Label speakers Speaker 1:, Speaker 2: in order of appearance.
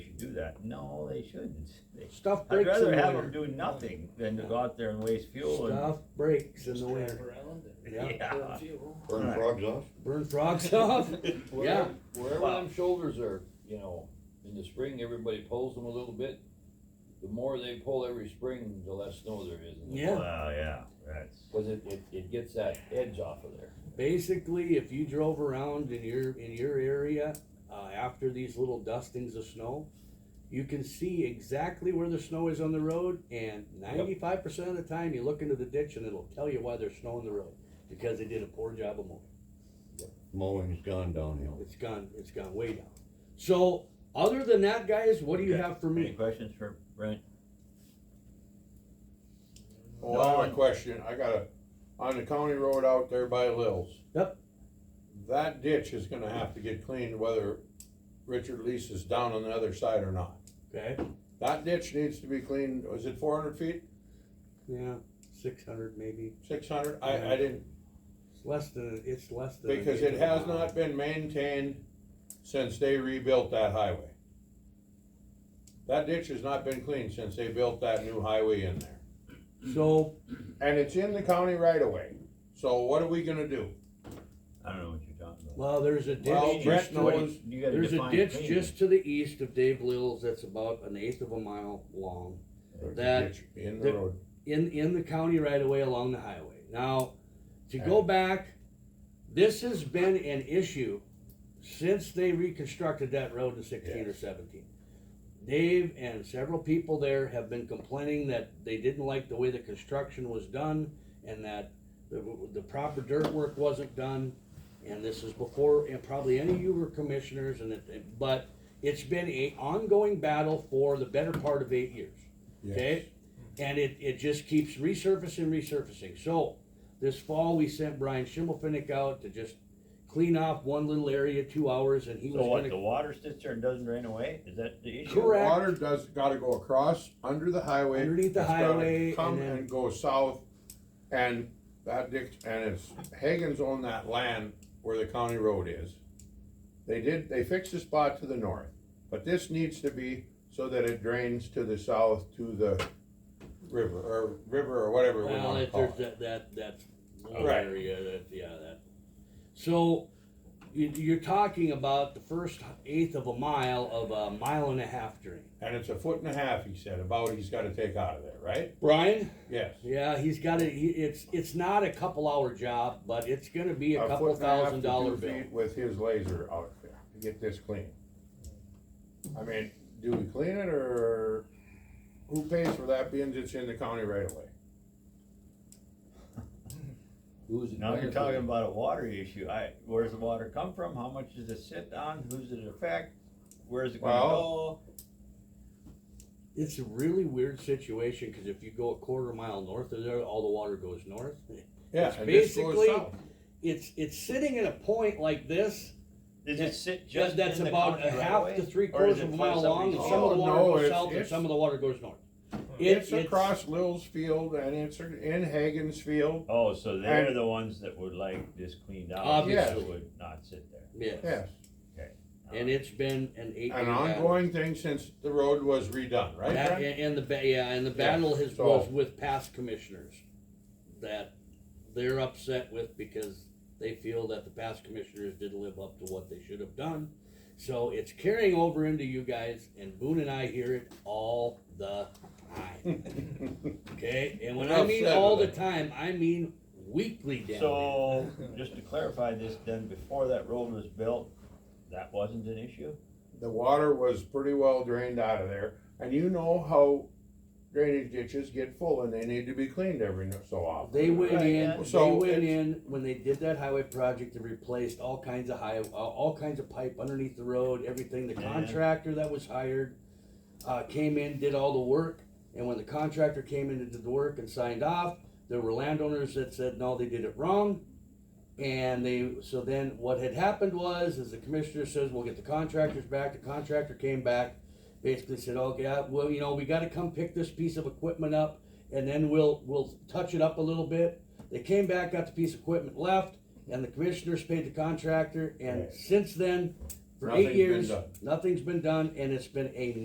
Speaker 1: do that. No, they shouldn't. They-
Speaker 2: Stuff
Speaker 1: I'd
Speaker 2: breaks in
Speaker 1: rather
Speaker 2: the
Speaker 1: have them do
Speaker 2: winter.
Speaker 1: nothing than to go out there and waste fuel and,
Speaker 2: Stuff breaks in
Speaker 3: Just
Speaker 2: the
Speaker 3: drive
Speaker 2: winter.
Speaker 3: around and
Speaker 2: Yeah,
Speaker 1: yeah.
Speaker 3: burn fuel.
Speaker 4: Burn
Speaker 1: Right.
Speaker 4: frogs off?
Speaker 2: burn frogs off. Yeah.
Speaker 5: Wherever- Wherever
Speaker 1: Wow.
Speaker 5: them shoulders are, you know, in the spring, everybody pulls them a little bit. The more they pull every spring, the less snow there is. in the-
Speaker 2: Yeah.
Speaker 1: Well, yeah, that's,
Speaker 5: Cause it, it, it gets that edge off of there.
Speaker 2: Basically, if you drove around in your in your area uh, after these little dustings of snow, you can see exactly where the snow is on the road, and ninety-five percent of the time, you look into the ditch and it'll tell you why there's snow on the road because they did a poor job of mowing.
Speaker 4: Mowing's gone downhill.
Speaker 2: It's gone. It's gone way down. So, other than that, guys, what do you
Speaker 1: Okay.
Speaker 2: have for
Speaker 1: any
Speaker 2: me?
Speaker 1: questions for Brent?
Speaker 6: Oh, I have a question, I got a, on the county road out there by Lils.
Speaker 2: Yep.
Speaker 6: That ditch is gonna have to get cleaned whether Richard Lease is down on the other side or not.
Speaker 2: Okay.
Speaker 6: That ditch needs to be cleaned, was it four hundred feet,
Speaker 2: Yeah, six hundred maybe.
Speaker 6: six hundred, I, I didn't,
Speaker 2: It's less than. It's less than.
Speaker 6: because it has not been maintained since they rebuilt that highway. That ditch has not been cleaned since they built that new highway in there.
Speaker 2: So
Speaker 6: And it's in the county right away. so what are we gonna do?
Speaker 1: I don't know what you're talking about.
Speaker 2: Well, there's a ditch.
Speaker 6: Well,
Speaker 2: just
Speaker 6: Brett
Speaker 2: to-
Speaker 6: knows-
Speaker 1: You gotta
Speaker 2: There's a
Speaker 1: define
Speaker 2: ditch
Speaker 1: clean.
Speaker 2: just to the east of Dave Little's that's about an eighth of a mile long That-
Speaker 6: In
Speaker 2: that-
Speaker 6: the road.
Speaker 2: in, in the county right away along the highway. Now, to go back, this has been an issue since they reconstructed that road in sixteen or seventeen. Dave and several people there have been complaining that they didn't like the way the construction was done and that the, the proper dirt work wasn't done. And this is before, and probably any of you were commissioners and it, but it's been a ongoing battle for the better part of eight years. Okay? And it, it just keeps resurfacing, resurfacing. So this fall, we sent Brian Schimmelfinnick out to just clean off one little area, two hours, and he
Speaker 1: So
Speaker 2: was
Speaker 1: what, the
Speaker 2: gonna.
Speaker 1: water sits there and doesn't drain away? Is that the issue?
Speaker 2: Correct.
Speaker 6: Water does, gotta go across, under the highway.
Speaker 2: Underneath the
Speaker 6: It's gotta
Speaker 2: highway, and
Speaker 6: Come
Speaker 2: then-
Speaker 6: and go south, and that ditch, and it's, Hagan's on that land where the county road is. They did, they fixed the spot to the north, but this needs to be so that it drains to the south to the river, or river, or whatever we
Speaker 2: Well,
Speaker 6: wanna
Speaker 2: it-
Speaker 6: call
Speaker 2: there's that,
Speaker 6: it.
Speaker 2: that, that little
Speaker 6: Right.
Speaker 2: area, that, yeah, that. So you, you're talking about the first eighth of a mile of a mile and a half drain.
Speaker 6: And it's a foot and a half, he said, about he's gotta take out of there, right?
Speaker 2: Brian?
Speaker 6: Yes.
Speaker 2: Yeah, he's got it. It's, it's not a couple hour job, but it's gonna be a couple
Speaker 6: foot and a half to
Speaker 2: thousand
Speaker 6: two
Speaker 2: dollar bill.
Speaker 6: feet With his laser out there to get this clean. I mean, do we clean it or who pays for that being it's in the county right away?
Speaker 5: Who's it?
Speaker 1: Now you're
Speaker 5: benefit?
Speaker 1: talking about a water issue. I, where's the water come from? How much does it sit on? Who's it affect? Where's it gonna
Speaker 6: Well-
Speaker 1: go?
Speaker 2: It's a really weird situation, cause if you go a quarter mile north of there, all the water goes north.
Speaker 6: Yeah,
Speaker 2: It's
Speaker 6: and this goes
Speaker 2: basically-
Speaker 6: south.
Speaker 2: It's, it's sitting at a point like this,
Speaker 1: Does
Speaker 2: Yeah,
Speaker 1: it sit just
Speaker 2: that- that's
Speaker 1: in the
Speaker 2: about a
Speaker 1: county right
Speaker 2: half
Speaker 1: away?
Speaker 2: to three
Speaker 1: Or
Speaker 2: quarters
Speaker 1: is it
Speaker 2: of a mile
Speaker 1: close up
Speaker 2: long, and
Speaker 1: east?
Speaker 2: some of the
Speaker 6: Oh,
Speaker 2: water
Speaker 6: no,
Speaker 2: goes
Speaker 6: it's-
Speaker 2: south and
Speaker 6: it's-
Speaker 2: some of the water goes north. It-
Speaker 6: It's across Lil's Field and it's in Hagen's Field,
Speaker 1: Oh, so they're
Speaker 6: And-
Speaker 1: the ones that would like this cleaned out,
Speaker 2: Obviously.
Speaker 1: so it would not sit there.
Speaker 2: Yeah,
Speaker 6: yes.
Speaker 2: and it's been an eight.
Speaker 6: An ongoing thing since the road was redone, right?
Speaker 2: That,
Speaker 6: Brent?
Speaker 2: and, and the, ba- yeah, and the battle has,
Speaker 6: so-
Speaker 2: was with past commissioners that they're upset with because they feel that the past commissioners didn't live up to what they should have done. So it's carrying over into you guys and Boone and I hear it all the time. Okay, and when I mean
Speaker 6: Upset
Speaker 2: all the
Speaker 6: with it.
Speaker 2: time, I mean weekly down there.
Speaker 1: So, just to clarify this, then before that road was built, that wasn't an issue?
Speaker 6: The water was pretty well drained out of there, and you know how drainage ditches get full and they need to be cleaned every so often.
Speaker 2: They went
Speaker 1: Right, yeah.
Speaker 2: in, they
Speaker 6: So
Speaker 2: went
Speaker 6: it's-
Speaker 2: in, when they did that highway project, they replaced all kinds of high, uh, all kinds of pipe underneath the road, everything, the
Speaker 1: Yeah.
Speaker 2: contractor that was hired. Uh, came in, did all the work, and when the contractor came in and did the work and signed off, there were landowners that said, no, they did it wrong. And they, so then what had happened was, is the commissioner says, we'll get the contractors back, the contractor came back. Basically said, okay, uh, well, you know, we gotta come pick this piece of equipment up and then we'll, we'll touch it up a little bit. They came back, got the piece of equipment left, and the commissioners paid the contractor, and
Speaker 6: Right.
Speaker 2: since then, for
Speaker 6: Nothing's
Speaker 2: eight
Speaker 6: been
Speaker 2: years,
Speaker 6: done.
Speaker 2: nothing's been done, and it's been a